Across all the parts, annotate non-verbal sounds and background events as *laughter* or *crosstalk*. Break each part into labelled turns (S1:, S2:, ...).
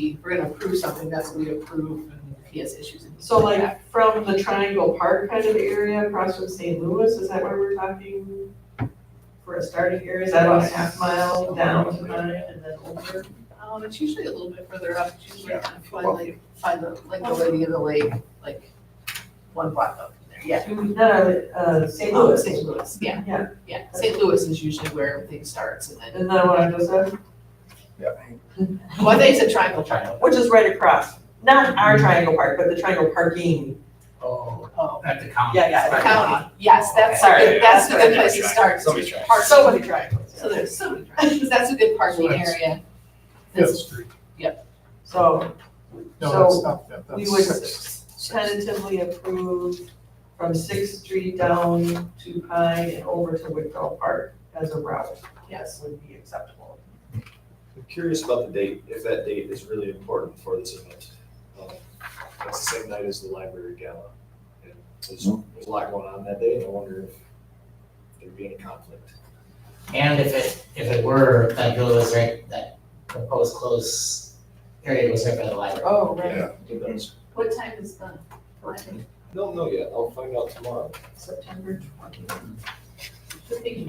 S1: we, if we're gonna approve something, that's what we approve and if he has issues. and-
S2: So like from the Triangle Park kind of area across from St. Louis, is that where we're talking? For a starting area, is that about a half mile down to mine and then over?
S1: Um, it's usually a little bit further up, it's usually
S2: Yeah.
S1: kind of find like, find the, like the lady in the lake, like one block up from there, yeah.
S2: Not, uh, St.
S1: Oh,
S2: Louis.
S1: St. Louis, yeah.
S2: Yeah.
S1: Yeah, St. Louis is usually where everything starts and then,
S2: Isn't that what I just said?
S1: well, I think it's a triangle, triangle.
S2: Which is right across, not our Triangle Park, but the Triangle Parking.
S3: Oh,
S1: Oh,
S3: at the county.
S2: Yeah, yeah, at the
S3: Right.
S1: county, yes, that's, a
S2: Sorry,
S1: good- that's a
S2: that's
S1: good
S2: right.
S1: place to start.
S3: Somebody's trying.
S1: Park-
S2: So many triangles.
S1: So there's *laughs* so many triangles, that's a good parking
S3: that's-
S1: area.
S4: Fifth
S1: That's-
S4: Street.
S2: So
S4: No,
S2: So,
S4: that's not Fifth,
S2: we
S4: that's
S2: would
S4: Sixth.
S2: tentatively approve from Sixth Street down to Pine and over to Wickdell Park as a route. Yes, would be acceptable.
S5: I'm curious about the date, if that date is really important for this event. Uh, That's the same night as the library gala. And There's, there's a lot going on that day, and I wonder if there'd be any conflict.
S6: And if it, if it were, that villa was right, that proposed close area was right by the library.
S2: Oh,
S5: Yeah. Who knows?
S1: What time is the library?
S5: Don't know yet, I'll find out tomorrow.
S2: September twentieth.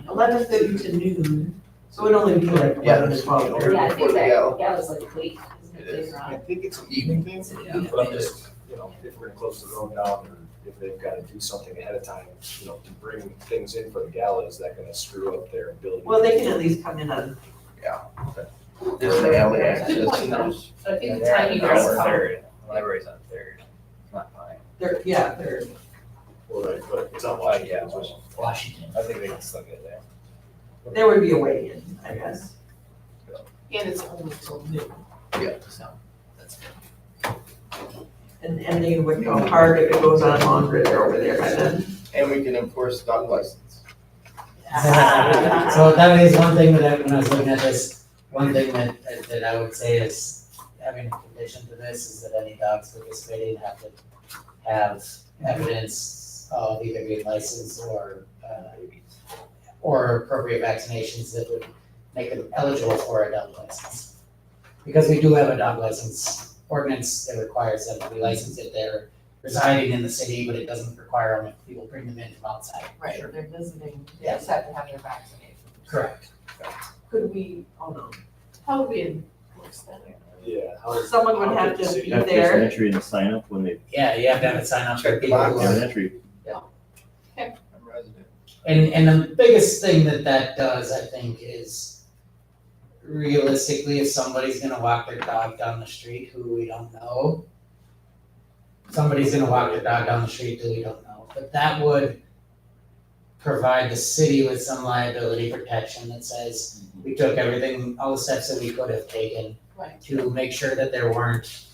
S1: Eleven thirty to noon.
S2: So it'd only be like
S3: Yeah,
S2: eleven to twelve.
S3: yeah.
S7: Yeah, I think that,
S5: Yeah.
S7: yeah, it was like late, isn't it,
S5: It is.
S7: later on?
S5: I think it's an evening thing,
S7: It's an
S1: Yeah.
S5: but I'm just, you know, if we're gonna close the road down, or if they've gotta do something ahead of time, you know, to bring things in for the gala, is that gonna screw up their ability?
S2: Well, they can at least come in on,
S8: There's an alley
S1: Good
S8: access
S1: point,
S8: and
S1: though.
S8: there's.
S7: So I think the
S8: they're on
S7: timing
S8: Third,
S7: was probably,
S8: Library's on third, not mine.
S2: they're, yeah, they're,
S5: Well, right, but it's not Washington,
S8: Yeah.
S5: it's Washington.
S6: Washington.
S8: I think they can still get there.
S2: there would be a way in, I guess.
S1: And it's only till noon.
S8: Yeah.
S1: So, that's good.
S2: And ending Wickdell Park, if it goes on longer, they're over there by then.
S8: And we can enforce dog license.
S6: *laughs* So that is one thing that I, when I was looking at this, one thing that, that- that I would say is, having a condition to this is that any dogs participating have to have evidence of either being licensed or, uh, or appropriate vaccinations that would make them eligible for a dog license. Because we do have a dog license ordinance that requires them to be licensed if they're residing in the city, but it doesn't require them if people bring them in from outside.
S1: Right, they're visiting,
S6: they just
S1: have to have their vaccination.
S6: Correct.
S2: Could we, oh no,
S1: How would we enforce that?
S5: Yeah, how does-
S2: someone would
S5: how
S2: have
S5: does the
S2: to
S5: city-
S2: be
S9: You have to place an
S2: there.
S9: entry and a sign up when they,
S6: Yeah, you have to have a sign up for
S8: Check the
S6: people. who
S8: box.
S9: have
S6: are-
S9: an entry.
S8: I'm resident.
S6: And, and the biggest thing that that does, I think, is realistically, if somebody's gonna walk their dog down the street who we don't know, somebody's gonna walk their dog down the street who we don't know, but that would provide the city with some liability protection that says, we took everything, all the steps that we could have taken
S1: Right.
S6: to make sure that there weren't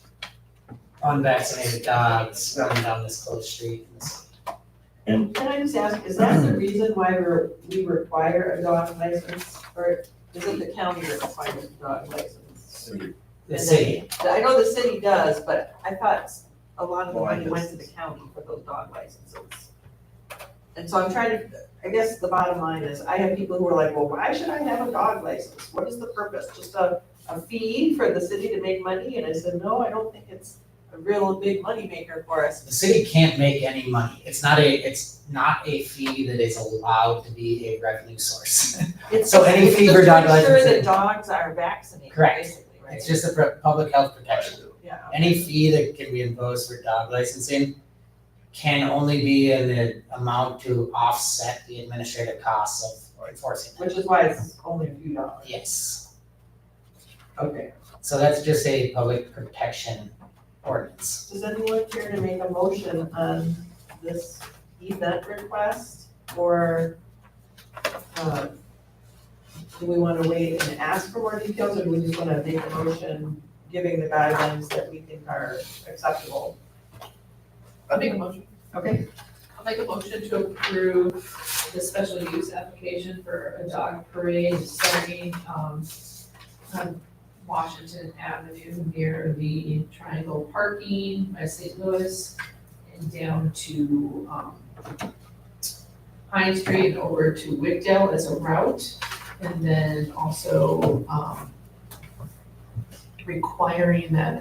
S6: unvaccinated dogs running down this closed street in the city.
S2: Can I just ask, is that the reason why we're, we require a dog license? Or is it the county that requires a dog license?
S6: The
S2: And then-
S6: city.
S2: I know the city does, but I thought a lot of the
S8: Well, I
S2: money went to the
S8: just-
S2: county for those dog licenses. And so I'm trying to, I guess the bottom line is, I have people who are like, well, why should I have a dog license? What is the purpose? Just a, a fee for the city to make money? And I said, no, I don't think it's a real big moneymaker for us.
S6: the city can't make any money. It's not a, it's not a fee that is allowed to be a revenue source. *laughs*
S2: It's
S6: So any
S2: it's
S6: fee
S2: just
S6: for dog
S2: to make Sure
S6: licensing.
S2: that dogs are vaccinated,
S6: Correct.
S2: basically, right?
S6: It's just a pr- public health protection.
S2: Yeah.
S6: Any fee that can be imposed for dog licensing can only be in the amount to offset the administrative costs of enforcing it.
S2: Which is why it's only a few dollars.
S6: Yes,
S2: Okay.
S6: so that's just a public protection ordinance.
S2: Does anyone care to make a motion on this event request or, uh, do we want to wait and ask for more details or do we just want to make a motion giving the guidelines that we think are acceptable?
S1: I'll make a motion.
S2: Okay.
S1: I'll make a motion to approve the special use application for a dog parade starting, um, on Washington Avenue near the Triangle Parking by St. Louis and down to, um, Pine Street and over to Wickdale as a route. And then also, um, requiring that